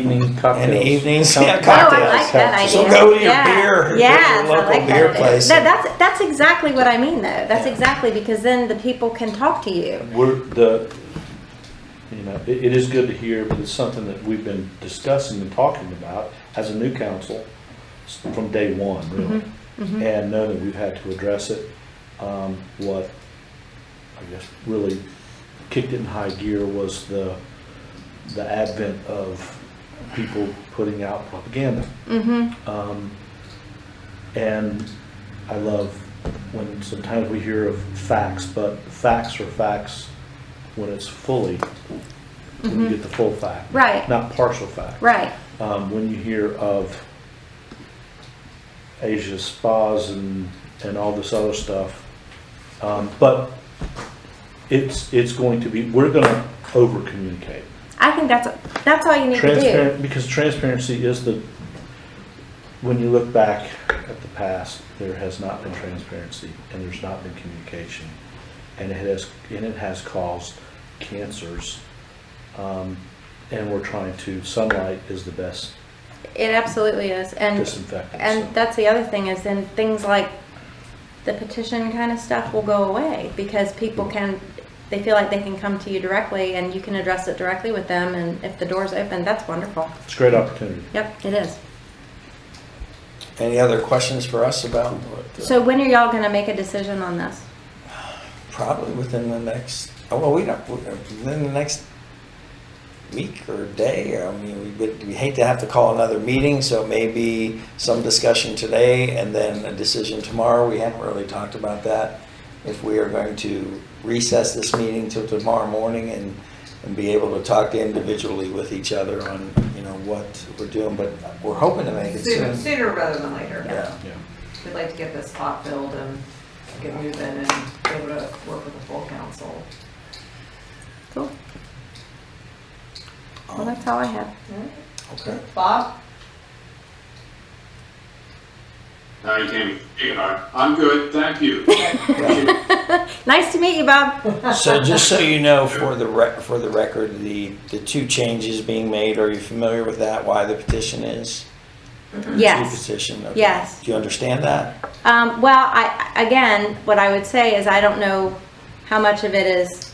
Evening in cocktails. the evenings, Cocktails. yeah, Oh, cocktails. I like that idea. So go to your Yeah. beer- go to Yes, your I local like that beer idea. place. No, that's, that's exactly what I mean though. That's Yeah. exactly, because then the people can talk to you. We're the, you know, it, it is good to hear, but it's something that we've been discussing and talking about as a new council s- from day one, really. Mm-hmm. And know that we've had to address it. Um, what, I guess, really kicked it in high gear was the, the advent of people putting out propaganda. Mm-hmm. Um, and I love when sometimes we hear of facts, but facts are facts when it's fully, when you get the full fact. Mm-hmm. Right. Not partial fact. Right. Um, when you hear of Asia spas and, and all this other stuff. Um, but it's, it's going to be, we're gonna over communicate. I think that's, that's all you need to do. Transparent, because transparency is the, when you look back at the past, there has not been transparency and there's not been communication. And it has, and it has caused cancers. Um, and we're trying to, sunlight is the best It absolutely is. And, disinfectant. and so. that's the other thing is then things like the petition kind of stuff will go away because people can, they feel like they can come to you directly and you can address it directly with them. And if the door's open, that's wonderful. It's a great opportunity. Yep, it is. Any other questions for us about? what the- So when are y'all gonna make a decision on this? Probably within the next, oh, well, we don't, we- within the next week or day, I mean, we, would- we hate to have to call another meeting, so maybe some discussion today and then a decision tomorrow, we haven't really talked about that. If we are going to recess this meeting till tomorrow morning and, and be able to talk individually with each other on, you know, what we're doing, but we're hoping to make it Sooner, soon. sooner rather than later. Yeah, Yeah. We'd like to get this spot filled and get moving and be able to work with the full council. Cool. Well, that's all I have. Oh, okay. Bob? Hi, Tammy. Hey, hi. I'm good, thank you. Yeah. Nice to meet you, Bob. So just so you know, for the rec, for the record, the, the two changes being made, are you familiar with that, why the petition is? Two Yes. petition, okay. Yes. Do you understand that? Um, well, I, again, what I would say is I don't know how much of it is,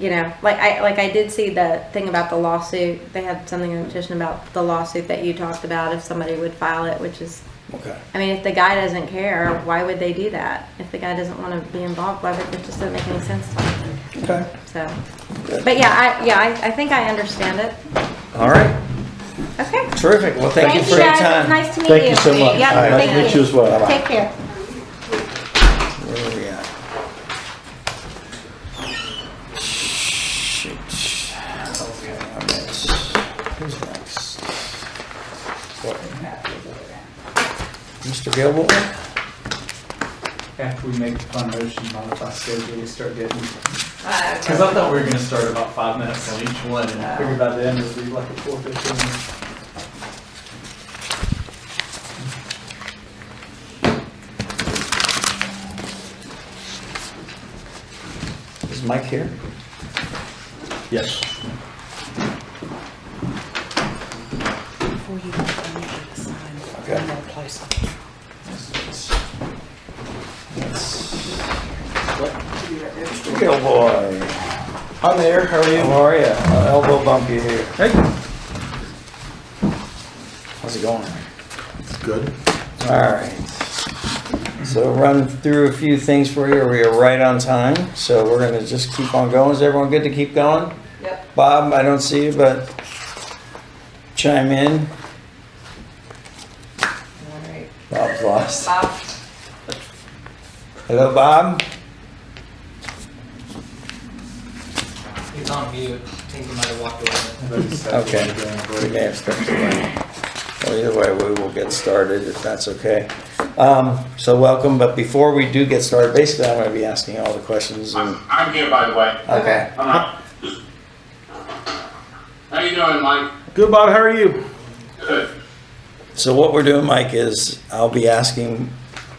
you know, like I, like I did see the thing about the lawsuit. They had something in the petition about the lawsuit that you talked about, if somebody would file it, which is, Okay. I mean, if the guy doesn't care, why would they do that? If the guy doesn't wanna be involved, why would, it just doesn't make any sense to me. Okay. So, but yeah, I, yeah, I, I think I understand it. All right, Okay. terrific, well, thank you for your guys. It's time. Nice to meet you. Thank you so much. Yep, All right. thank Nice to meet you as well. Take care. Where are we at? Shoot, okay, I'm next, who's next? What? Mr. Gilmore? after we make the fund motion, modify schedule, we start getting. Because Uh, I thought we were gonna start about five minutes on each one, and I figured by then it'd be like a four fifteen. Is Mike here? Yes. Before you, I need you to sign Okay. one more place. Good boy. I'm there, how are you? How are you? I'll elbow bump you here. Hey. How's it going? Good. Alright. So run through a few things for you, we are right on time, so we're gonna just keep on going. Is everyone good to keep going? Yep. Bob, I don't see you, but chime in. All right. Bob's lost. Bob? Hello, Bob? He's on mute. I think he might have walked away. Okay. We may have stepped away. Well, either way, we will get started if that's okay. Um, So welcome, but before we do get started, basically, I'm going to be asking all the questions. and- I'm, I'm here, by the way. Okay. I'm not- How you doing, Mike? Good, Bob. How are you? Good. So what we're doing, Mike, is I'll be asking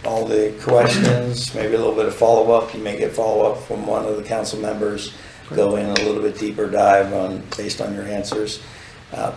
all the questions, maybe a little bit of follow-up. You may get follow-up from one of the council members, go in a little bit deeper dive on, based on your answers. Uh,